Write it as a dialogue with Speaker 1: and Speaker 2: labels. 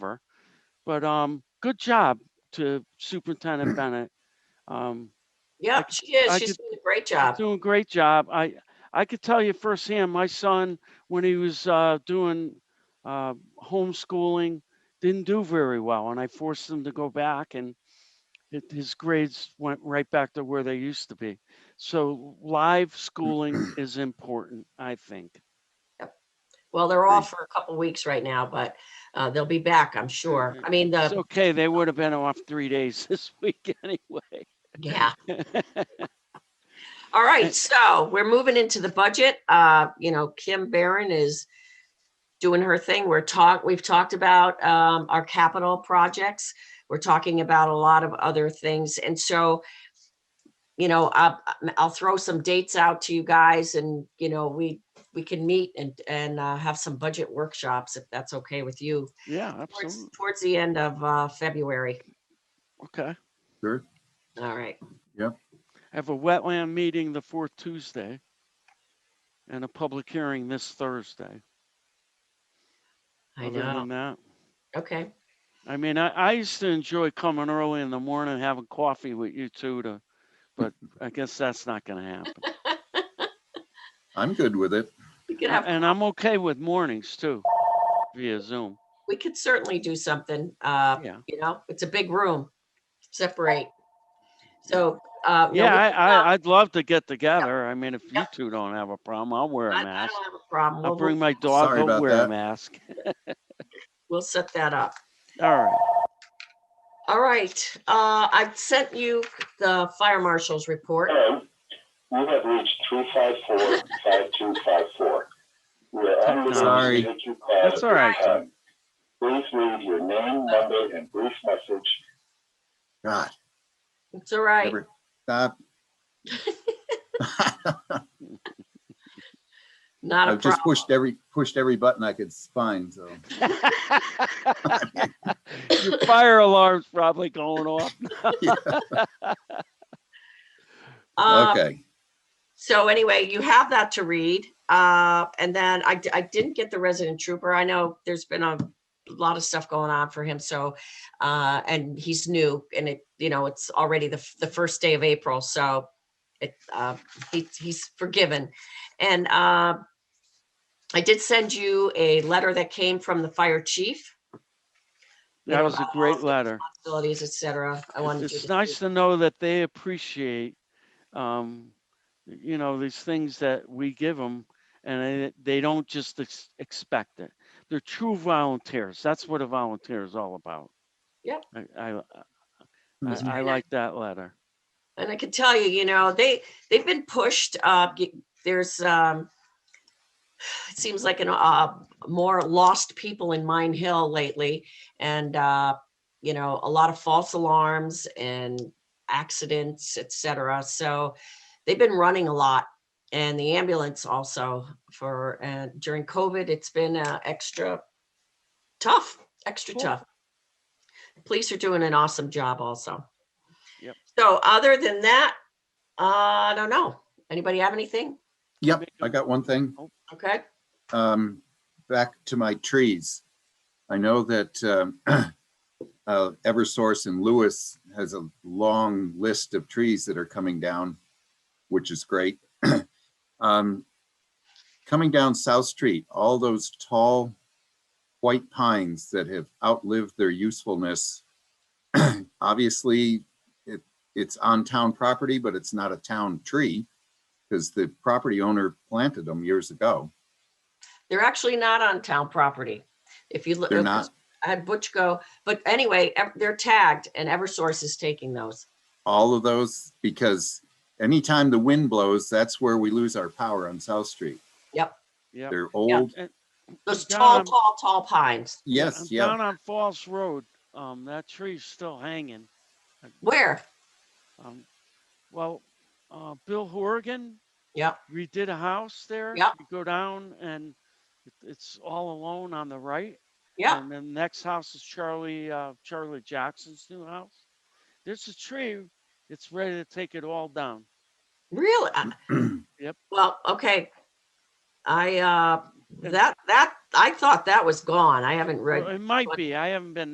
Speaker 1: but um, good job to Superintendent Bennett. Um,
Speaker 2: Yep, she is.
Speaker 1: I
Speaker 2: She's
Speaker 1: could-
Speaker 2: doing a great
Speaker 1: You're
Speaker 2: job.
Speaker 1: Doing a great job. I, I could tell you firsthand, my son, when he was uh, doing uh, homeschooling, didn't do very well, and I forced him to go back, and it, his grades went right back to where they used to be. So live schooling is important, I think.
Speaker 2: Well, they're off for a couple weeks right now, but uh, they'll be back, I'm sure.
Speaker 1: Mm-hmm.
Speaker 2: I mean,
Speaker 1: It's
Speaker 2: the,
Speaker 1: okay, they would have been off three days this week anyway.
Speaker 2: yeah. All right, so we're moving into the budget. Uh, you know, Kim Barron is doing her thing. We're talk, we've talked about um, our capital projects. We're talking about a lot of other things. And so, you know, I'll, I'll throw some dates out to you guys and, you know, we, we can meet and, and uh, have some budget workshops if that's okay with you.
Speaker 1: Yeah,
Speaker 2: towards,
Speaker 1: absolutely.
Speaker 2: towards the end of uh, February.
Speaker 1: Okay.
Speaker 3: Sure.
Speaker 2: All right.
Speaker 1: I have a wetland meeting the fourth Tuesday and a public hearing this Thursday.
Speaker 2: I
Speaker 1: Other
Speaker 2: know.
Speaker 1: than that,
Speaker 2: Okay.
Speaker 1: I mean, I, I used to enjoy coming early in the morning, and having coffee with you two to, but I guess that's not gonna happen.
Speaker 3: I'm good with it.
Speaker 2: We could have,
Speaker 1: And I'm okay with mornings too, via Zoom.
Speaker 2: we could certainly do something. Uh,
Speaker 1: Yeah,
Speaker 2: you know, it's a big room. Separate. So, uh, no,
Speaker 1: yeah,
Speaker 2: we-
Speaker 1: I, I, I'd love to get together. I mean, if you
Speaker 2: Yeah.
Speaker 1: two don't have a problem, I'll wear a
Speaker 2: I, I
Speaker 1: mask.
Speaker 2: don't have a problem.
Speaker 1: I'll
Speaker 2: We'll,
Speaker 1: bring
Speaker 2: we'll,
Speaker 1: my dog,
Speaker 3: Sorry
Speaker 1: I'll
Speaker 3: about
Speaker 1: wear a
Speaker 3: that.
Speaker 1: mask.
Speaker 2: we'll set that up.
Speaker 1: All right,
Speaker 2: All right. Uh, I sent you the fire marshal's report.
Speaker 4: Hello. Um, We have reached three five four five two five four. We are unable
Speaker 3: Sorry.
Speaker 4: to take your call.
Speaker 1: That's
Speaker 4: at
Speaker 1: all right.
Speaker 4: this time. Please leave your name, number, and brief message.
Speaker 3: God,
Speaker 2: It's all right.
Speaker 3: never stop.
Speaker 2: Not a
Speaker 3: I've Oh, just
Speaker 2: problem.
Speaker 3: pushed every, pushed every button I could find, so.
Speaker 1: your fire alarm's probably going off.
Speaker 2: Um,
Speaker 3: Okay,
Speaker 2: So anyway, you have that to read. Uh, and then I, d- I didn't get the resident trooper. I know there's been a lot of stuff going on for him. So, uh, and he's new and it, you know, it's already the, f- the first day of April. So it, uh, he, he's forgiven. And, uh, I did send you a letter that came from the fire chief, You
Speaker 1: That
Speaker 2: know,
Speaker 1: was a
Speaker 2: about all
Speaker 1: great
Speaker 2: things
Speaker 1: letter.
Speaker 2: facilities, et cetera. I
Speaker 1: It's-
Speaker 2: wanted you to
Speaker 1: It's
Speaker 2: see
Speaker 1: nice to know that they appreciate, um, you know, these things that we give them and they- they don't just ex- expect it. They're true volunteers. That's what a volunteer is all about.
Speaker 2: Yep.
Speaker 1: I, I, I,
Speaker 3: Mhm.
Speaker 1: I like that letter.
Speaker 2: And I can tell you, you know, they, they've been pushed, uh, y- there's, um, it seems like an, uh, more lost people in Mine Hill lately. And, uh, you know, a lot of false alarms and accidents, et cetera. So they've been running a lot. And the ambulance also for, uh, during COVID, it's been, uh, extra tough, extra
Speaker 1: Cool.
Speaker 2: tough. Police are doing an awesome job also.
Speaker 1: Yep.
Speaker 2: So other than that, uh, I don't know. Anybody have anything?
Speaker 3: yep, I got one thing.
Speaker 2: Okay.
Speaker 3: um, back to my trees. I know that um, uh, Eversource in Lewis has a long list of trees that are coming down, which is great. um, coming down South Street, all those tall white pines that have outlived their usefulness. Obviously, it, it's on town property, but it's not a town tree because the property owner planted them years ago.
Speaker 2: They're actually not on town property. If you look.
Speaker 3: They're not.
Speaker 2: I had Butch go, but anyway, ev- they're tagged and Eversource is taking those.
Speaker 3: all of those because anytime the wind blows, that's where we lose our power on South Street.
Speaker 1: Yeah.
Speaker 3: They're old.
Speaker 2: Those
Speaker 1: John,
Speaker 2: tall,
Speaker 1: I'm-
Speaker 2: tall, tall pines.
Speaker 3: Yes, yeah.
Speaker 1: Down on Falls Road, um, that tree's still hanging.
Speaker 2: Where?
Speaker 1: Um, well, uh, Bill Horgan
Speaker 2: Yep.
Speaker 1: we did a house there.
Speaker 2: Yep.
Speaker 1: You go down and it- it's all alone on the right.
Speaker 2: Yeah.
Speaker 1: And then the next house is Charlie, uh, Charlie Jackson's new house. There's a tree. It's ready to take it all down.
Speaker 2: Really? I-
Speaker 1: Yep.
Speaker 2: Well, okay. I, uh, that, that, I thought that was gone. I haven't read.
Speaker 1: Well, It might
Speaker 2: but-
Speaker 1: be. I haven't been